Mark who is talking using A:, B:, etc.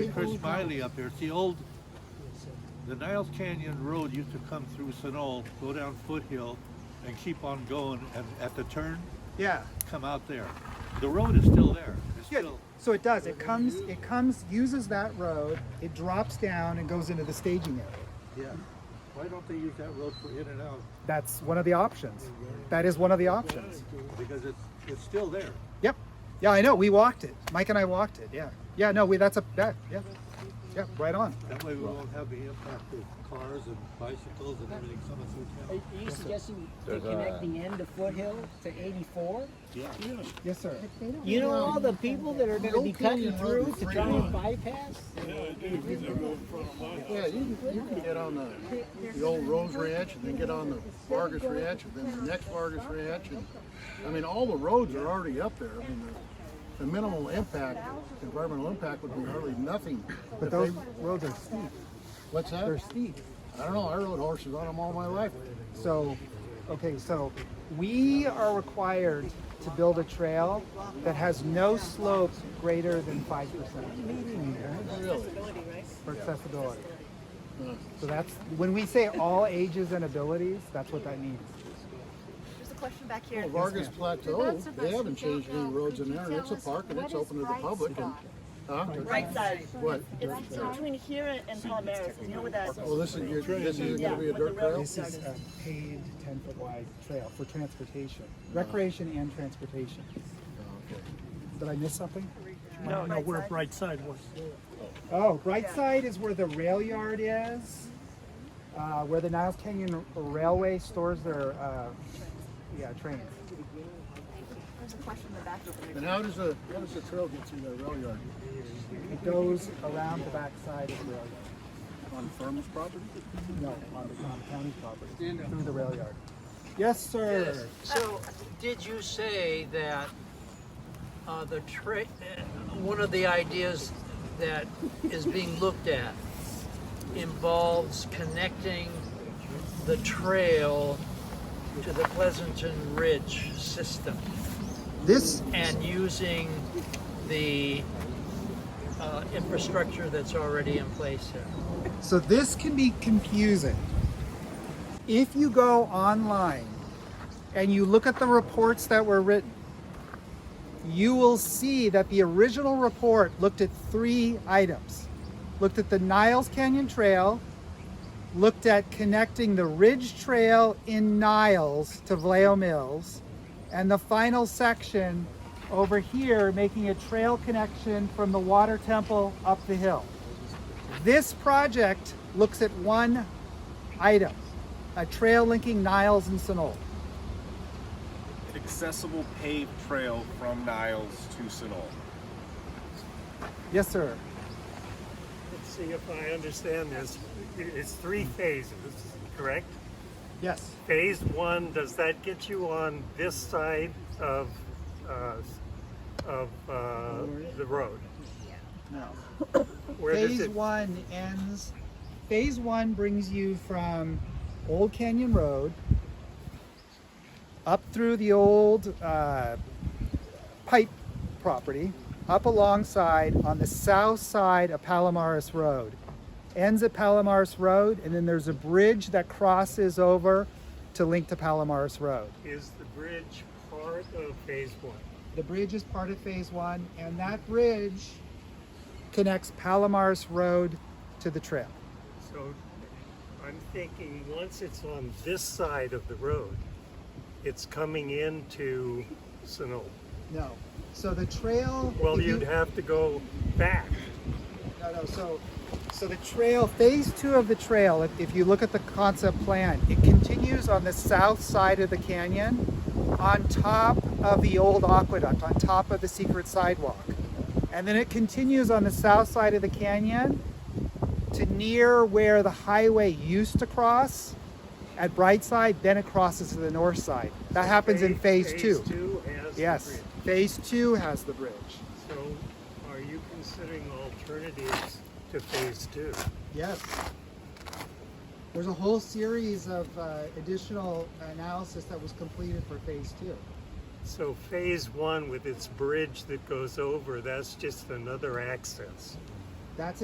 A: Chris Miley up here. It's the old, the Niles Canyon Road used to come through Sanol, go down Foothill, and keep on going, and at the turn,
B: Yeah.
A: come out there. The road is still there. It's
B: Yeah.
A: still,
B: So it does. It comes. It comes. Uses that road. It drops down and goes into the staging area.
A: yeah. Why don't they use that road for in and out?
B: That's one of the options. That is one of the options.
A: Because it's, it's still there.
B: Yep. Yeah, I know. We walked it. Mike and I walked it. Yeah. Yeah. No, we. That's a. That. Yeah. Yeah. Right on.
A: That way we won't have the impact of cars and bicycles and everything coming
C: Are
A: through
C: you
A: town.
C: suggesting they connect the end of Foothill to 84?
A: Yeah.
B: Yes, sir.
C: You know all the people that are going to be cutting through to try and bypass?
D: Yeah, you can, you can get on the, the old Rose Ranch and then get on the Vargas Ranch and then the next Vargas Ranch and, I mean, all the roads are already up there. I mean, the, the minimal impact, environmental impact would be hardly nothing.
B: But
D: If they-
B: those roads are steep.
D: What's
B: They're
D: that?
B: steep.
D: I don't know, I rode horses on them all my life.
B: So, okay, so we are required to build a trail that has no slope greater than five percent
D: Really?
B: for accessibility. So that's, when we say all ages and abilities, that's what that means.
E: There's a question back here.
D: Well, Vargas Plateau, they haven't changed any roads in there and it's a park and it's open to the public and, huh?
F: Right side.
D: What?
F: It's between here and Palomares. You know what that?
D: Well, this is, your- this isn't gonna be a dirt trail?
B: This is a paved ten foot wide trail for transportation, recreation and transportation. Did I miss something?
G: No, no, where Bright Side was.
B: Oh, right side is where the rail yard is, uh, where the Niles Canyon Railway stores their, uh, yeah, trains.
E: There's a question in the back.
D: And how does the, how does the trail get through that rail yard?
B: It goes around the backside of the rail yard.
D: On farmer's property?
B: No, on the, on the county property, through the rail yard. Yes, sir.
H: So, did you say that uh, the tra- uh, one of the ideas that is being looked at involves connecting the trail to the Pleasanton Ridge system
B: This,
H: and using the uh, infrastructure that's already in place there?
B: so this can be confusing. If you go online and you look at the reports that were written, you will see that the original report looked at three items. Looked at the Niles Canyon Trail, looked at connecting the Ridge Trail in Niles to Vallejo Mills, and the final section over here making a trail connection from the water temple up the hill. This project looks at one item, a trail linking Niles and Sonol.
I: accessible paved trail from Niles to Sinol.
B: Yes, sir.
G: Let's see if I understand this. I- It's three phases, correct?
B: Yes.
G: Phase one, does that get you on this side of, uh, of, uh, the road?
B: No.
G: Where does
B: Phase
G: it,
B: one ends. Phase one brings you from Old Canyon Road up through the old uh, pipe property, up alongside on the south side of Palomares Road. Ends at Palomares Road, and then there's a bridge that crosses over to link to Palomares Road.
G: is the bridge part of phase one?
B: The bridge is part of phase one, and that bridge connects Palomares Road to the trail.
G: So I'm thinking, once it's on this side of the road, it's coming into Sonoma.
B: No. So the trail.
G: Well,
B: if
G: you'd have to go back.
B: No, no. So, so the trail, phase two of the trail, if, if you look at the concept plan, it continues on the south side of the canyon, on top of the old aqueduct, on top of the secret sidewalk. And then it continues on the south side of the canyon to near where the highway used to cross at Brightside, then it crosses to the north side. That happens in phase two.
G: Phase two has the
B: Yes,
G: bridge.
B: phase two has the bridge.
G: So are you considering alternatives to phase two?
B: Yes. There's a whole series of uh, additional analysis that was completed for phase two.
G: So phase one with its bridge that goes over, that's just another access.
B: That's